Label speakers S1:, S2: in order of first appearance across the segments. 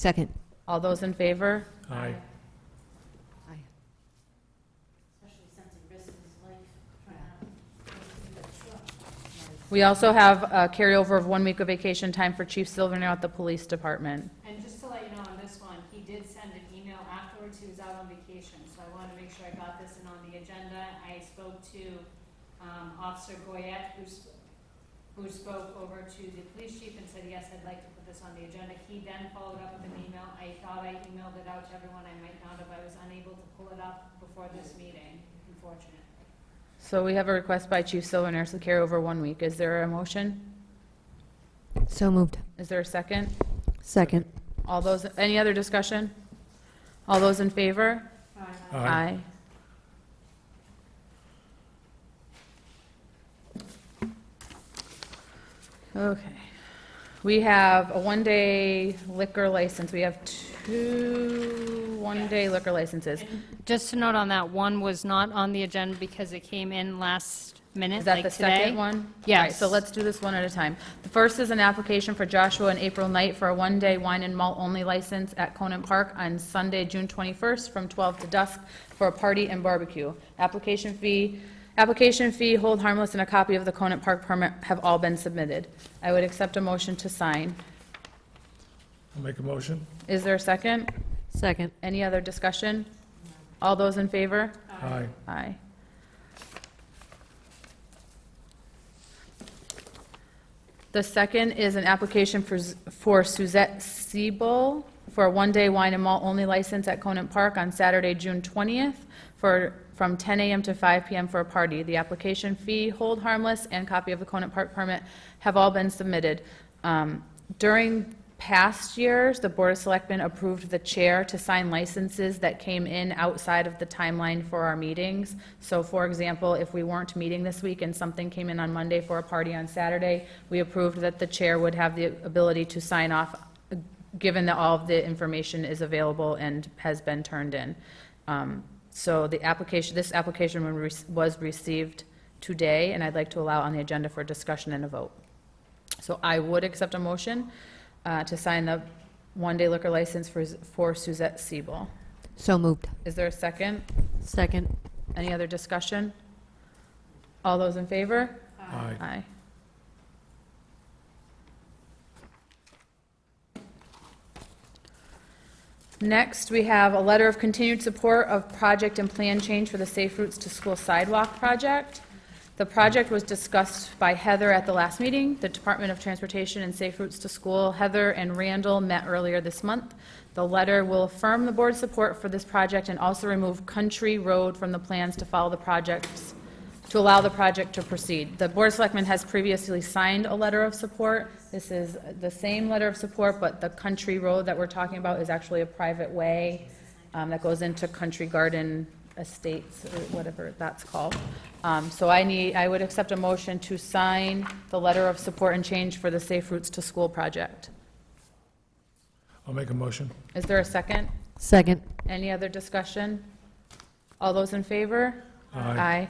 S1: Second.
S2: All those in favor?
S3: Aye.
S2: We also have a carryover of one week of vacation time for Chief Silvernail at the Police Department.
S4: And just to let you know on this one, he did send an email afterwards, he was out on vacation, so I wanted to make sure I got this in on the agenda. I spoke to um, Officer Goyette, who sp- who spoke over to the police chief and said, yes, I'd like to put this on the agenda. He then followed up with an email, I thought I emailed it out to everyone, I might not have, I was unable to pull it up before this meeting, unfortunately.
S2: So we have a request by Chief Silvernail to carry over one week. Is there a motion?
S1: So moved.
S2: Is there a second?
S1: Second.
S2: All those, any other discussion? All those in favor?
S3: Um,
S2: Aye. Okay. We have a one-day liquor license. We have two one-day liquor licenses.
S4: Just to note on that, one was not on the agenda because it came in last minute,
S2: Is that the second one?
S4: Yes.
S2: All right, So let's do this one at a time. The first is an application for Joshua and April Knight for a one-day wine and malt-only license at Conan Park on Sunday, June 21st, from 12 to dusk for a party and barbecue. Application fee, application fee, hold harmless, and a copy of the Conan Park permit have all been submitted. I would accept a motion to sign.
S3: I'll make a motion.
S2: Is there a second?
S1: Second.
S2: Any other discussion? All those in favor?
S3: Aye.
S2: Aye. The second is an application for Z- for Suzette Siebel for a one-day wine and malt-only license at Conant Park on Saturday, June 20th, for, from 10 a.m. to 5 p.m. for a party. The application fee, hold harmless, and copy of the Conant Park permit have all been submitted. Um, During past years, the Board of Selectmen approved the chair to sign licenses that came in outside of the timeline for our meetings. So for example, if we weren't meeting this week and something came in on Monday for a party on Saturday, we approved that the chair would have the ability to sign off, given that all of the information is available and has been turned in. Um, So the application, this application was- was received today, and I'd like to allow on the agenda for discussion and a vote. So I would accept a motion uh, to sign the one-day liquor license for for Suzette Siebel.
S1: So moved.
S2: Is there a second?
S1: Second.
S2: Any other discussion? All those in favor?
S3: Aye.
S2: Aye. Next, we have a letter of continued support of project and plan change for the Safe Routes to School Sidewalk project. The project was discussed by Heather at the last meeting. The Department of Transportation and Safe Routes to School, Heather and Randall, met earlier this month. The letter will affirm the board's support for this project and also remove Country Road from the plans to follow the project's to allow the project to proceed. The Board of Selectmen has previously signed a letter of support. This is the same letter of support, but the country road that we're talking about is actually a private way um, that goes into Country Garden Estates, or whatever that's called. Um, So I need, I would accept a motion to sign the letter of support and change for the Safe Routes to School project.
S3: I'll make a motion.
S2: Is there a second?
S1: Second.
S2: Any other discussion? All those in favor?
S3: Aye.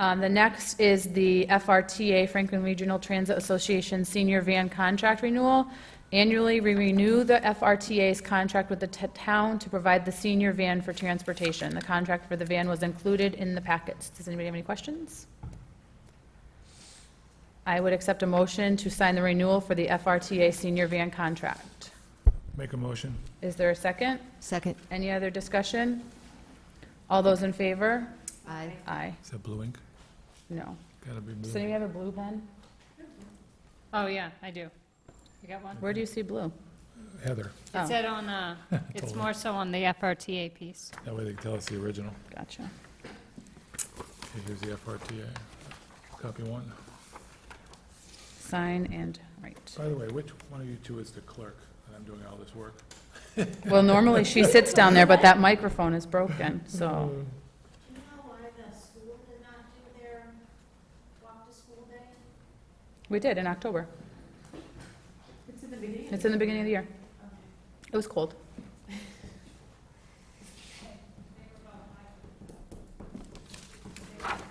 S2: Um, The next is the FRTA, Franklin Regional Transit Association Senior Van Contract Renewal. Annually, we renew the FRTA's contract with the t- town to provide the senior van for transportation. The contract for the van was included in the packets. Does anybody have any questions? I would accept a motion to sign the renewal for the FRTA senior van contract.
S3: Make a motion.
S2: Is there a second?
S1: Second.
S2: Any other discussion? All those in favor?
S1: Aye.
S2: Aye.
S3: Is that blue ink?
S2: No.
S3: Gotta be
S2: Does
S3: blue.
S2: anybody have a blue pen?
S4: Oh, yeah, I do. You got one?
S2: Where do you see blue?
S3: Heather,
S2: Oh.
S4: It said on, uh, it's more so on the FRTA piece.
S3: that way they can tell us the original.
S2: Gotcha.
S3: Okay, Here's the FRTA. Copy one.
S2: Sign and, right.
S3: By the way, which one of you two is the clerk that I'm doing all this work?
S2: Well, normally she sits down there, but that microphone is broken,
S5: Do
S2: so.
S5: you know why the school did not do their walk to school day?
S2: We did in October.
S5: It's in the beginning.
S2: It's in the beginning of the year. It was cold.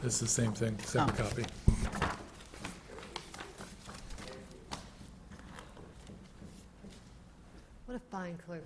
S3: This is the same thing, second copy.
S1: What a fine. Fine, clerk.